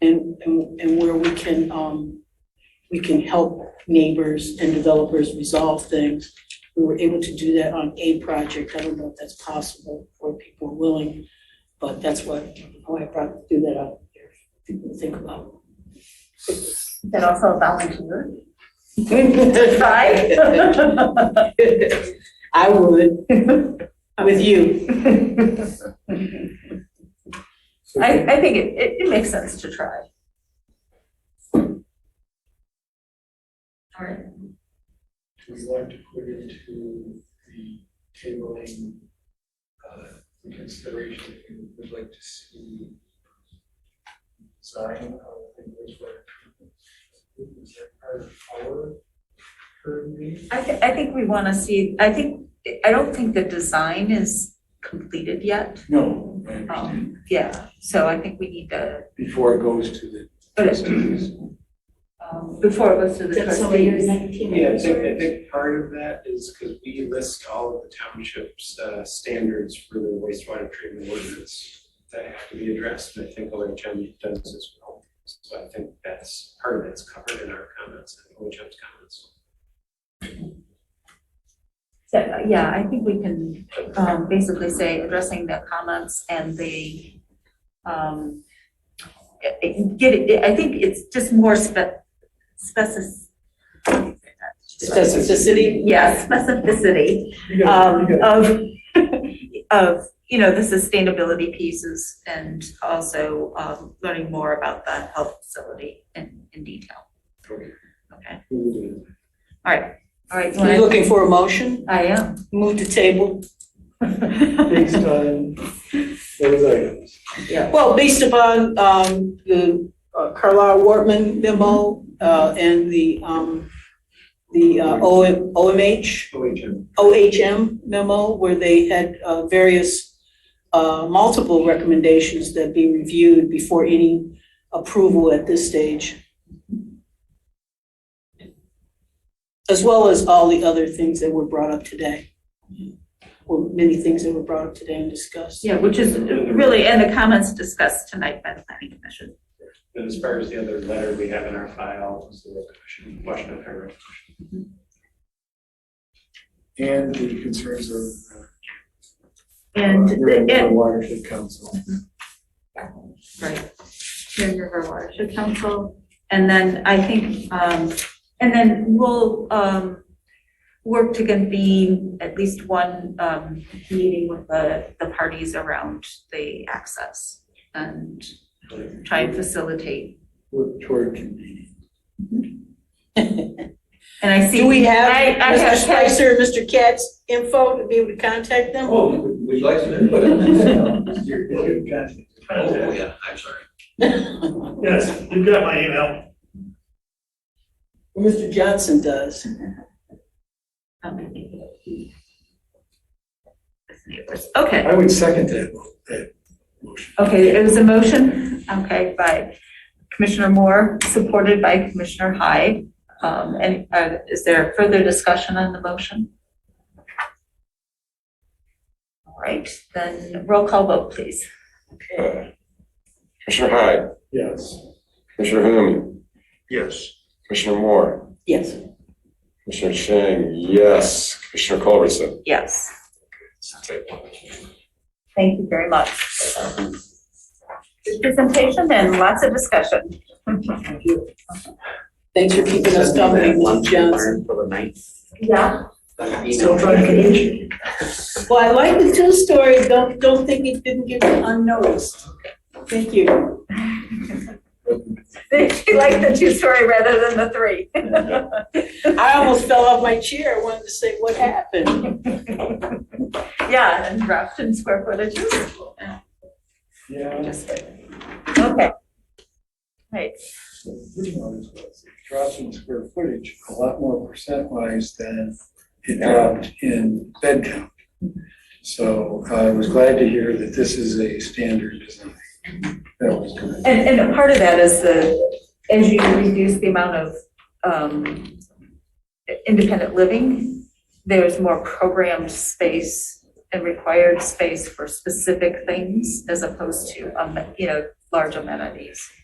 and, and and where we can, um, we can help neighbors and developers resolve things. We were able to do that on a project, I don't know if that's possible or people are willing, but that's what, why I brought, do that up here, people to think about. And also volunteer. I would, with you. I, I think it, it, it makes sense to try. All right, We'd like to put into the tabling, uh, the consideration, if you would like to see design of English word. Is that part of our current meeting? I thi- I think we want to see, I think, I don't think the design is completed yet. No, I understand. Um, yeah, so I think we need to, Before it goes to the but it, trustees. um, before it goes to the trustees. Yeah, I think, I think part of that is because we list all of the township's uh, standards for the wastewater treatment ordinance that have to be addressed, and I think OHM does as well. So I think that's, part of that's covered in our comments, and OHM's comments. So, yeah, I think we can, um, basically say addressing the comments and the, um, it- it- get it, I think it's just more spe- specific. Specificity? Yeah, specificity, You got um, it, you got of, of, you know, the sustainability pieces and also, um, learning more about the health facility in, in detail. Okay. Okay, it. all right, you Are you wanna- looking for a motion? I am. Move to table? Based on those items. Well, based upon um, the uh, Carlisle Wortman memo uh, and the, um, the uh, O- OMH, OHM. OHM memo, where they had uh, various, uh, multiple recommendations that be reviewed before any approval at this stage. As well as all the other things that were brought up today. Or many things that were brought up today and discussed. Yeah, which is really, and the comments discussed tonight by the planning commission. And as far as the other letter we have in our file, is the question, question of her. And the concerns of. uh, And, Urban the- and, Watershed Council. right, Huron River Watershed Council. And then I think, um, and then we'll, um, work to convene at least one, um, meeting with the, the parties around the access and try and facilitate. Look toward convenience. And I see. Do we have I, I Mr. have. Spicer, and Mr. Katz info to be able to contact them? Oh, would would you like to? Oh, Yes, yeah, I'm sorry. you've got my email. Mr. Johnson does. Um, Okay. I would second that, mo- that motion. Okay, it was a motion, okay, by Commissioner Moore, supported by Commissioner Hyde. Um, and, uh, is there further discussion on the motion? All right, then roll call vote, please. Uh, Commissioner Hyde, Yes. Commissioner Hume, Yes. Commissioner Moore, Yes. Commissioner Chang, yes, Commissioner Culberson. Yes, thank you very much. Good presentation and lots of discussion. Thanks for keeping us company, Mr. Johnson. For the ninth. Yeah. Still trying to get it. Well, I like the two stories. Don't, don't think it didn't get unnoticed. Thank you. She liked the two-story rather than the three. I almost fell off my chair. I wanted to say, what happened? Yeah, and wrapped in square footage. Yeah. Just kidding. Okay. Right, pretty much was. It dropped in square footage a lot more percent wise than it dropped in bed count. So I was glad to hear that this is a standard design. That was good. and, and a part of that is the, as you reduce the amount of, um, independent living, there's more programmed space and required space for specific things as opposed to, um, you know, large amenities.